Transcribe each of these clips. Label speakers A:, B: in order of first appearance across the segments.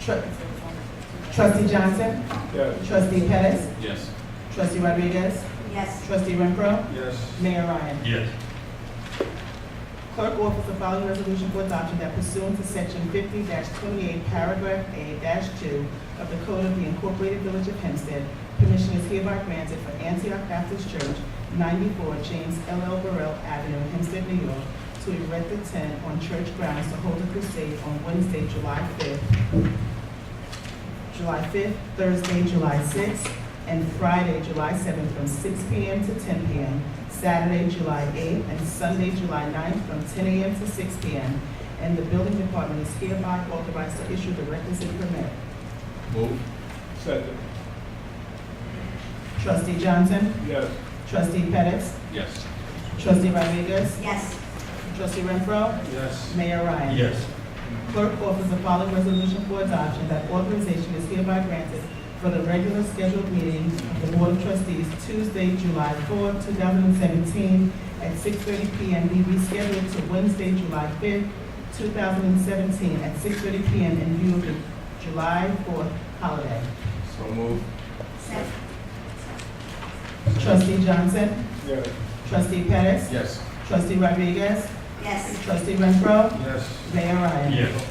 A: Tru- Trustee Johnson?
B: Yes.
A: Trustee Pettis?
C: Yes.
A: Trustee Rodriguez?
D: Yes.
A: Trustee Renfro?
B: Yes.
A: Mayor Ryan?
C: Yes.
A: Clerk offers the following resolution for adoption that pursuant to section fifty twenty-eight, paragraph A two of the Code of the Incorporated Village of Hempstead, permission is hereby granted for Antioch Baptist Church, ninety-four James L. L. Burrell Avenue, Hempstead, New York, to erect a tent on church grounds to hold a crusade on Wednesday, July fifth, July fifth, Thursday, July sixth, and Friday, July seventh, from six P M. to ten P M. Saturday, July 8th, and Sunday, July 9th, from 10 a.m. to 6 p.m. And the building department is hereby authorized to issue the requisite permit.
C: Move.
B: Second.
A: Trustee Johnson?
B: Yes.
A: Trustee Pettis?
C: Yes.
A: Trustee Rodriguez?
D: Yes.
A: Trustee Renfro?
B: Yes.
A: Mayor Ryan?
C: Yes.
A: Clerk offers the following resolution for adoption, that authorization is hereby granted for the regular scheduled meeting of the Board of Trustees Tuesday, July 4, 2017, at 6:30 PM, be rescheduled to Wednesday, July 5, 2017, at 6:30 PM in view of the July 4th holiday.
B: So move.
D: Second.
A: Trustee Johnson?
B: Yes.
A: Trustee Pettis?
C: Yes.
A: Trustee Rodriguez?
D: Yes.
A: Trustee Renfro?
B: Yes.
A: Mayor Ryan?
C: Yes.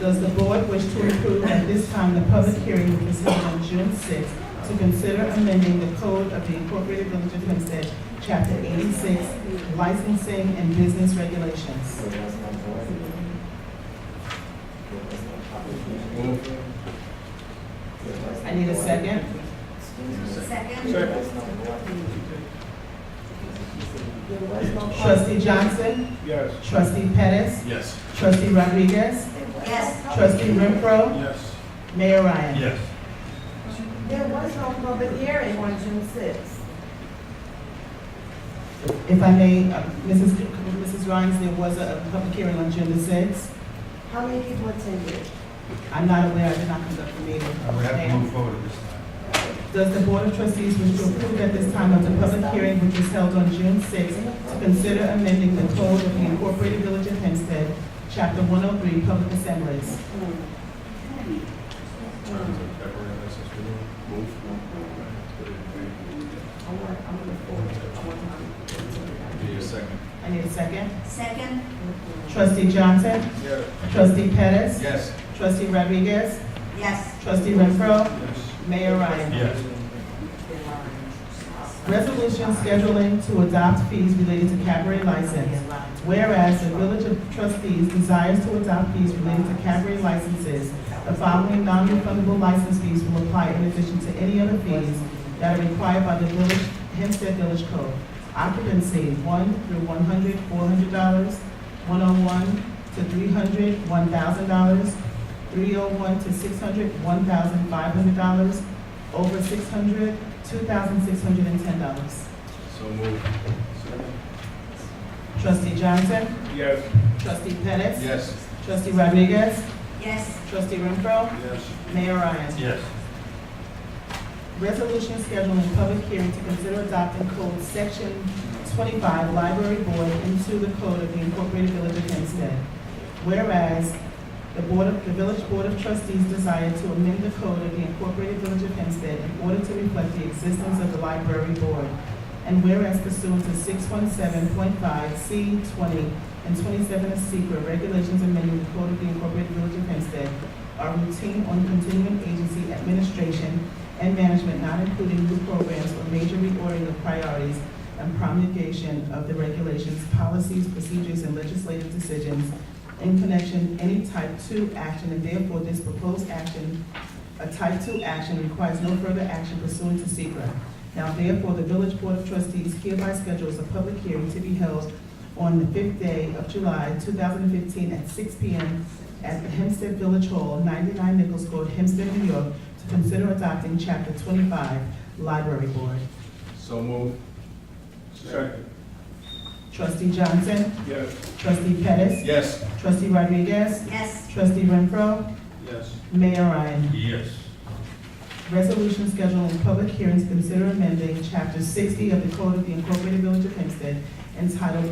A: Does the board wish to approve at this time the public hearing which is held on June 6 to consider amending the code of the Incorporated Village of Hempstead, Chapter 86, licensing and business regulations?
B: Move.
A: I need a second.
D: Second.
B: Second.
A: Trustee Johnson,
B: Yes.
A: trustee Pettis,
C: Yes.
A: trustee Rodriguez,
D: Yes.
A: trustee Renfro,
B: Yes.
A: Mayor Ryan.
C: Yes.
E: There was no public hearing on June sixth.
A: If I may, uh, Mrs. C- Mrs. Rhines, there was a a public hearing on June the 6th.
E: How many people attended?
A: I'm not aware, I did not conduct the meeting.
F: I would have
A: Ma'am?
F: to move forward at this time.
A: Does the Board of Trustees wish to approve at this time of the public hearing which was held on June 6 to consider amending the code of the Incorporated Village of Hempstead, Chapter 103, Public Assemblies?
E: Hmm.
C: Move.
E: I want, I want to forward it. I want to-
C: Need a second?
A: I need a second.
D: Second.
A: Trustee Johnson?
B: Yes.
A: Trustee Pettis?
C: Yes.
A: Trustee Rodriguez?
D: Yes.
A: Trustee Renfro?
B: Yes.
A: Mayor Ryan?
C: Yes.
A: Resolution scheduling to adopt fees related to cabaret license. Whereas the Village of Trustees desires to adopt fees related to cabaret licenses, the following non-refundable license fees will apply in addition to any other fees that are required by the Village, Hempstead Village Code. Occupancy, one through one hundred, four hundred dollars, one oh one to three hundred, one thousand dollars, three oh one to six hundred, one thousand five hundred dollars, over six hundred, two thousand six hundred and ten dollars.
C: So move.
A: Trustee Johnson?
B: Yes.
A: Trustee Pettis?
C: Yes.
A: Trustee Rodriguez?
D: Yes.
A: Trustee Renfro?
B: Yes.
A: Mayor Ryan?
C: Yes.
A: Resolution scheduling public hearing to consider adopting code section twenty-five, library board, into the code of the Incorporated Village of Hempstead. Whereas the Board of, the Village Board of Trustees desire to amend the code of the Incorporated Village of Hempstead in order to reflect the existence of the library board. And whereas pursuant to six one seven point five C twenty and twenty-seven of secret regulations amending the code of the Incorporated Village of Hempstead are routine on continuing agency administration and management, not including new programs or major reordering of priorities and promulgation of the regulations, policies, procedures, and legislative decisions in connection any type two action, and therefore this proposed action, a type two action requires no further action pursuant to secret. Now therefore, the Village Board of Trustees hereby schedules a public hearing to be held on the fifth day of July, two thousand and fifteen, at six P M at the Hempstead Village Hall, ninety-nine Nichols Court, Hempstead, New York, to consider adopting Chapter 25, Library Board.
C: So move.
B: Second.
A: Trustee Johnson,
B: Yes.
A: trustee Pettis,
C: Yes.
A: trustee Rodriguez,
D: Yes.
A: trustee Renfro,
B: Yes.
A: Mayor Ryan.
C: Yes.
A: Resolution scheduling public hearings, consider amending Chapter 60 of the Code of the Incorporated Village of Hempstead entitled